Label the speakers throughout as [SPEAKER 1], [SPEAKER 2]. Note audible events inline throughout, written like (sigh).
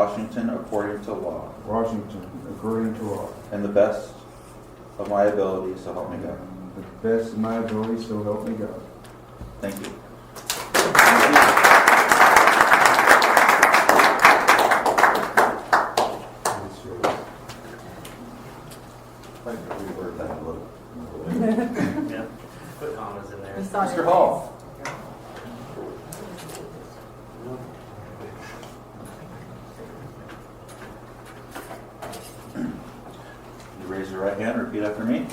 [SPEAKER 1] Washington according to law,
[SPEAKER 2] Washington, according to law,
[SPEAKER 1] and the best of my ability, so help me God.
[SPEAKER 2] and the best of my ability, so help me God.
[SPEAKER 1] Thank you.
[SPEAKER 2] That's yours.
[SPEAKER 1] I'd like to reword that a little.
[SPEAKER 3] Yeah, put commas in there.
[SPEAKER 1] Mr. Hall. You raise your right hand, repeat after me.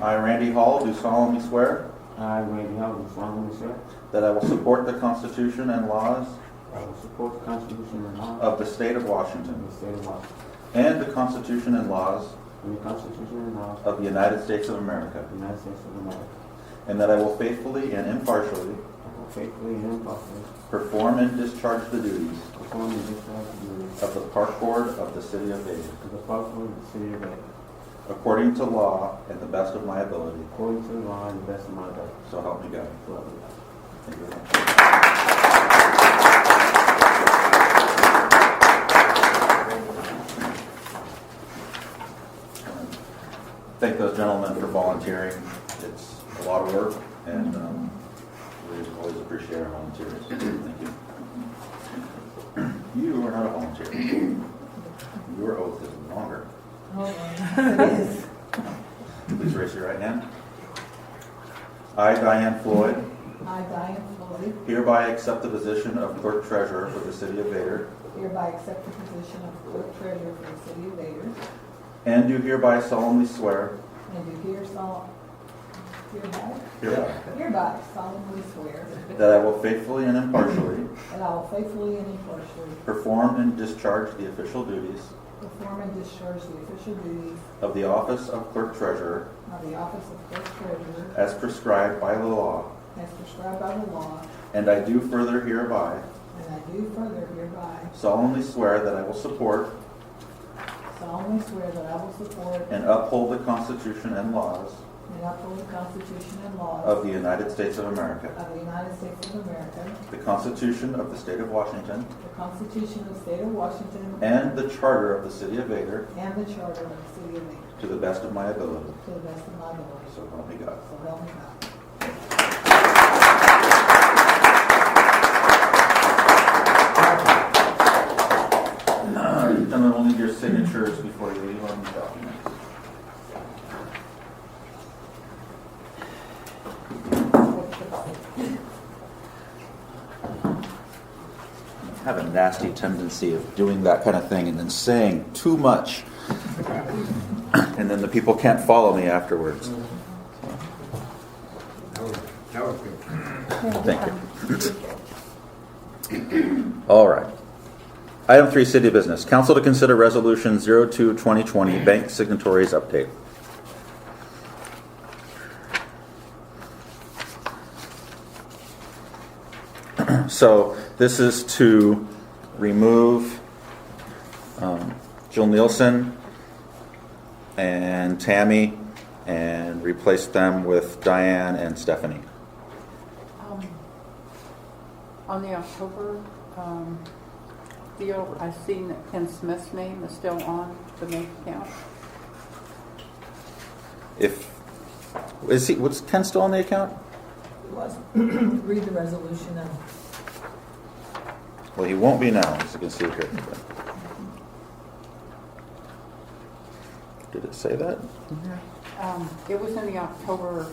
[SPEAKER 1] I, Randy Hall, do solemnly swear
[SPEAKER 4] I, Randy Hall, do solemnly swear
[SPEAKER 1] that I will support the Constitution and laws
[SPEAKER 4] that I will support the Constitution and laws
[SPEAKER 1] of the State of
[SPEAKER 4] of
[SPEAKER 1] Washington
[SPEAKER 4] the state of Washington
[SPEAKER 1] and the Constitution and laws
[SPEAKER 4] and the Constitution and laws
[SPEAKER 1] of the United States of America,
[SPEAKER 4] of the United States of America.
[SPEAKER 1] and that I will faithfully and impartially
[SPEAKER 4] I will faithfully and impartially
[SPEAKER 1] perform and discharge the duties
[SPEAKER 4] perform the discharge of duties
[SPEAKER 1] of the Park Board of the City of Haven,
[SPEAKER 4] of the park board of the city of Bay,
[SPEAKER 1] according to law and the best of my ability,
[SPEAKER 4] according to the law and the best of my ability.
[SPEAKER 1] so help me God.
[SPEAKER 4] So help me God.
[SPEAKER 1] Thank you very much. Thank those gentlemen for volunteering. It's a lot of work, and um, we always appreciate our volunteers. Thank you. You are not a volunteer. Your oath is longer.
[SPEAKER 5] Oh,
[SPEAKER 1] Please raise your right hand. I, Diane Floyd,
[SPEAKER 5] I, Diane Floyd,
[SPEAKER 1] hereby accept the position of clerk treasurer for the city of Vader,
[SPEAKER 5] hereby accept the position of clerk treasurer for the city of Vader,
[SPEAKER 1] and do hereby solemnly swear
[SPEAKER 5] and do here sol- hereby,
[SPEAKER 1] hereby
[SPEAKER 5] hereby solemnly swear
[SPEAKER 1] that I will faithfully and impartially
[SPEAKER 5] that I will faithfully and impartially
[SPEAKER 1] perform and discharge the official duties
[SPEAKER 5] perform and discharge the official duties
[SPEAKER 1] of the office of clerk treasurer
[SPEAKER 5] of the office of clerk treasurer
[SPEAKER 1] as prescribed by the law,
[SPEAKER 5] as prescribed by the law,
[SPEAKER 1] and I do further hereby
[SPEAKER 5] and I do further hereby
[SPEAKER 1] solemnly swear that I will support
[SPEAKER 5] solemnly swear that I will support
[SPEAKER 1] and uphold the Constitution and laws
[SPEAKER 5] and uphold the Constitution
[SPEAKER 1] of
[SPEAKER 5] and laws
[SPEAKER 1] the United States of America,
[SPEAKER 5] of the United States of America,
[SPEAKER 1] the Constitution of the State of Washington,
[SPEAKER 5] the Constitution of the State of Washington,
[SPEAKER 1] and the Charter of the City of Vader
[SPEAKER 5] And the Charter of the City of Maine,
[SPEAKER 1] to the best of my ability.
[SPEAKER 5] to the best of my knowledge.
[SPEAKER 1] So help me God.
[SPEAKER 5] So help me God.
[SPEAKER 1] Gentlemen, we'll need your signatures before you leave on the document. I have a nasty tendency of doing that kind of thing and then saying too much. And then the people can't follow me afterwards. Thank you. (coughs) All right. Item three, city business. Council to consider resolution 02 2020 bank signatories update. So this is to remove um, Jill Nielsen and Tammy and replace them with Diane and Stephanie.
[SPEAKER 6] Um, On the October um, deal, I seen that Ken Smith's name is still on the bank account.
[SPEAKER 1] If, is he, was Ken still on the account?
[SPEAKER 5] Was, (clears throat) read the resolution now.
[SPEAKER 1] Well, he won't be now, as you can see here. Did it say that?
[SPEAKER 6] Um, It was in the October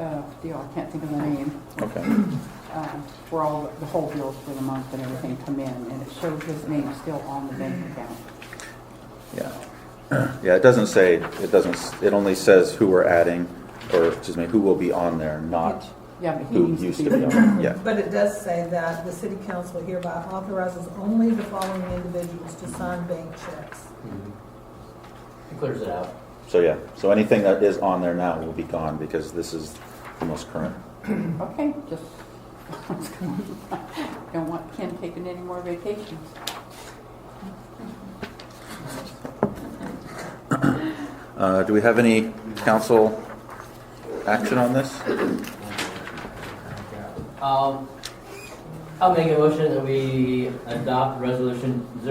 [SPEAKER 6] uh, deal, I can't think of the name,
[SPEAKER 1] Okay.
[SPEAKER 6] uh, where all, the whole bills for the month and everything come in, and it showed his name still on the bank account.
[SPEAKER 1] Yeah. Yeah, it doesn't say, it doesn't, s- it only says who we're adding, or, excuse me, who will be on there, not
[SPEAKER 6] Yeah, but he
[SPEAKER 1] who
[SPEAKER 6] needs
[SPEAKER 1] used to be on. Uh, Yeah,
[SPEAKER 5] But it does say that the city council hereby authorizes only the following individuals to sign bank checks.
[SPEAKER 3] It clears it out.
[SPEAKER 1] so yeah, so anything that is on there now will be gone, because this is the most current.
[SPEAKER 6] Okay, just, (laughs) don't want Ken taking any more vacations.
[SPEAKER 1] Uh, do we have any council action on this?
[SPEAKER 3] Um, I'll make a motion that we adopt resolution